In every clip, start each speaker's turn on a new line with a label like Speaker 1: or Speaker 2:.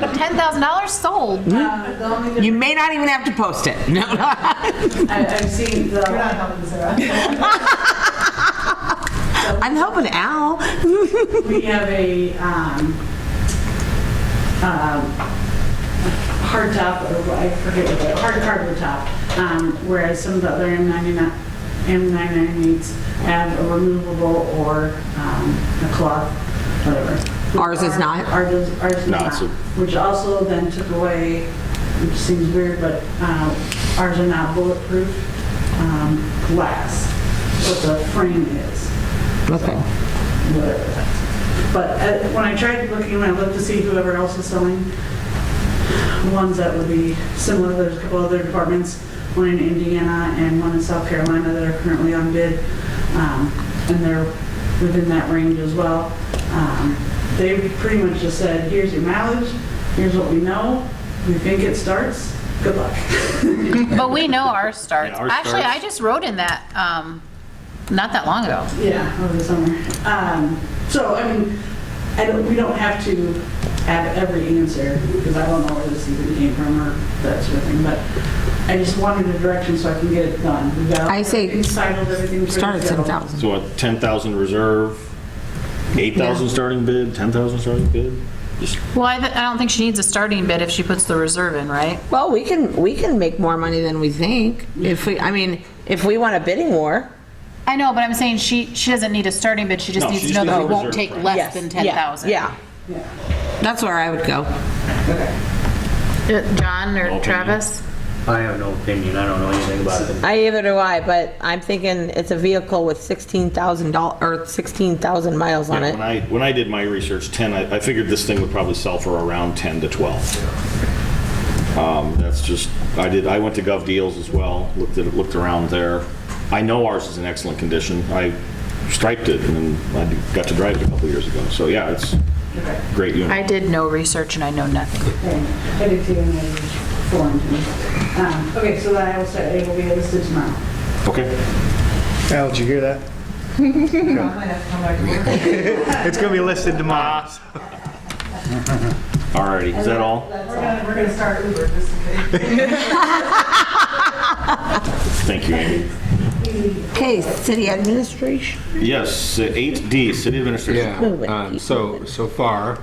Speaker 1: ten thousand dollars sold.
Speaker 2: Uh, The only
Speaker 3: You
Speaker 2: difference,
Speaker 3: may not even have to post it. No,
Speaker 2: I- I've seen the. You're not helping
Speaker 3: I'm helping Al.
Speaker 2: We have a um, um, hard top, or I forget what, it- hard cardboard top, um, whereas some of the other M99 M998s have a removable or um, a cloth, whatever.
Speaker 3: Ours is not?
Speaker 2: Ours is ours is
Speaker 4: No,
Speaker 2: not,
Speaker 4: it's a-
Speaker 2: which also then took away, which seems weird, but um, ours are not bulletproof um, glass, what the frame is
Speaker 3: Okay.
Speaker 2: whatever that's. But uh, when I tried looking, I looked to see whoever else is selling ones that would be similar, there's a couple other departments, one in Indiana and one in South Carolina that are currently on bid, um, and they're within that range as well. Um, They pretty much just said, here's your mileage, here's what we know, we think it starts, good luck.
Speaker 1: But we know ours starts.
Speaker 4: Yeah, ours
Speaker 1: Actually,
Speaker 4: starts.
Speaker 1: I just wrote in that, um, not that long ago.
Speaker 2: Yeah, over the summer. Um, So, I mean, I don't, we don't have to have every answer, because I don't know where this even came from or that sort of thing, but I just wanted a direction so I can get it done. We've got
Speaker 3: I say
Speaker 2: everything Titled everything. ready
Speaker 3: Start
Speaker 2: to
Speaker 3: at
Speaker 2: go.
Speaker 3: 10,000.
Speaker 4: So what, 10,000 reserve, 8,000 starting bid, 10,000 starting bid? Just
Speaker 1: Well, I, th- I don't think she needs a starting bid if she puts the reserve in, right?
Speaker 3: Well, we can, we can make more money than we think. If we, I mean, if we want a bidding war.
Speaker 1: I know, but I'm saying she, she doesn't need a starting bid. She just
Speaker 4: No,
Speaker 1: needs
Speaker 4: she
Speaker 1: to know
Speaker 4: just
Speaker 1: that
Speaker 4: needs
Speaker 1: it
Speaker 4: a
Speaker 1: won't
Speaker 4: reserve
Speaker 1: take
Speaker 4: price.
Speaker 1: less
Speaker 3: yes,
Speaker 1: than
Speaker 3: yeah,
Speaker 1: ten thousand.
Speaker 3: Yeah. That's where I would go.
Speaker 1: Uh, John or
Speaker 4: opinion.
Speaker 1: Travis?
Speaker 5: I have no opinion, I don't know anything about it.
Speaker 3: I either do I, but I'm thinking it's a vehicle with 16,000 dollars or 16,000 miles on
Speaker 4: Yeah,
Speaker 3: it.
Speaker 4: When I, when I did my research, 10, I I figured this thing would probably sell for around 10 to 12. Um, That's just, I did, I went to Gov Deals as well, looked at, looked around there. I know ours is in excellent condition. I striped it and then I got to drive it a couple years ago. So yeah, it's a great
Speaker 1: I
Speaker 4: unit.
Speaker 1: did no research and I know nothing.
Speaker 2: Okay, Headed to you in a foreign to me. Um, Okay, so then I will say it will be listed tomorrow.
Speaker 4: Okay.
Speaker 6: Al, did you hear that? It's gonna be listed tomorrow.
Speaker 4: All righty, is that all?
Speaker 2: We're gonna start Uber just in case.
Speaker 4: Thank you, Amy.
Speaker 3: Okay, city administration.
Speaker 4: Yes, 8D, City Administration.
Speaker 7: Yeah,
Speaker 3: Move it,
Speaker 7: um,
Speaker 3: keep
Speaker 7: so, so far,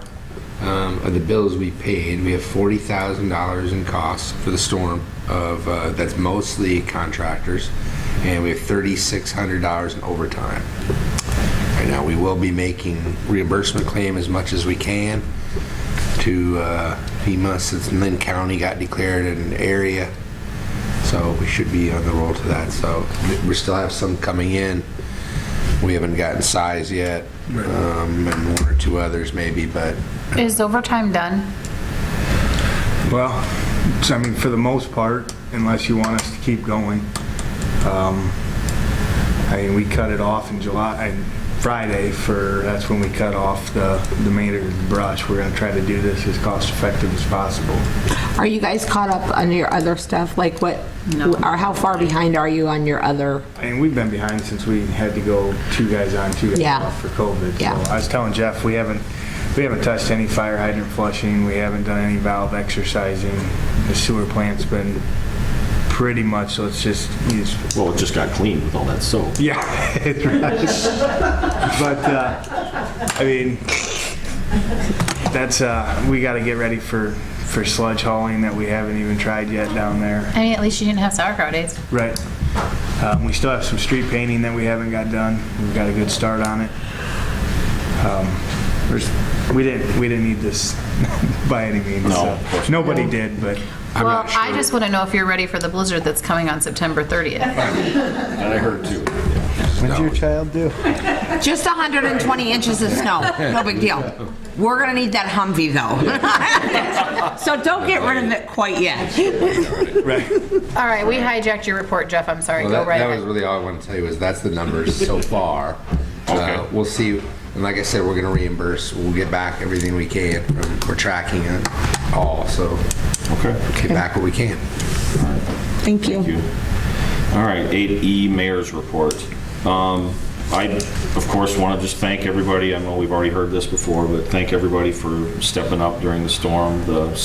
Speaker 7: um, of the bills we paid, we have forty thousand dollars in costs for the storm of, uh, that's mostly contractors, and we have thirty-six hundred dollars in overtime. Right now, we will be making reimbursement claim as much as we can to, uh, FEMA since Lynn County got declared an area. So we should be on the roll to that, so we still have some coming in. We haven't gotten size yet, um, and one or two others maybe, but,
Speaker 1: Is overtime done?
Speaker 6: Well, so I mean, for the most part, unless you want us to keep going. Um, I mean, we cut it off in July, and Friday for, that's when we cut off the, the remainder of the brush. We're gonna try to do this as cost effective as possible.
Speaker 3: Are you guys caught up on your other stuff? Like what, or how far behind are you on your other?
Speaker 6: I mean, we've been behind since we had to go two guys on, two guys
Speaker 3: Yeah.
Speaker 6: off for COVID.
Speaker 3: Yeah.
Speaker 6: So I was telling Jeff, we haven't, we haven't touched any fire hydrant flushing, we haven't done any valve exercising. The sewer plant's been pretty much, so it's just, it's
Speaker 4: Well, it just got cleaned with all that soap.
Speaker 6: yeah, it was. But, uh, I mean, that's, uh, we gotta get ready for, for sludge hauling that we haven't even tried yet down there.
Speaker 1: I mean, at least she didn't have sauerkraut days.
Speaker 6: Right. Um, we still have some street painting that we haven't got done. We've got a good start on it. Um, there's, we didn't, we didn't need this by any means.
Speaker 4: No,
Speaker 6: so.
Speaker 4: of course not.
Speaker 6: Nobody did, but
Speaker 7: I'm
Speaker 1: Well,
Speaker 7: not
Speaker 1: I
Speaker 7: sure.
Speaker 1: just want to know if you're ready for the blizzard that's coming on September 30th.
Speaker 4: That I heard too.
Speaker 6: what'd your child do?
Speaker 3: Just 120 inches of snow, no big deal. We're gonna need that Humvee though. So don't get rid of it quite yet.
Speaker 6: Right.
Speaker 1: All right, we hijacked your report, Jeff. I'm sorry.
Speaker 7: Well,
Speaker 1: Go
Speaker 7: that,
Speaker 1: right
Speaker 7: that was
Speaker 1: ahead.
Speaker 7: really all I want to tell you is that's the numbers so far.
Speaker 4: Okay.
Speaker 7: Uh, We'll see, and like I said, we're gonna reimburse, we'll get back everything we can, Um, we're tracking it all, so
Speaker 4: Okay.
Speaker 7: get back what we can.
Speaker 3: Thank you.
Speaker 4: Thank you. All right, 8E, Mayor's Report. Um, I, of course, want to just thank everybody, I know we've already heard this before, but thank everybody for stepping up during the storm. The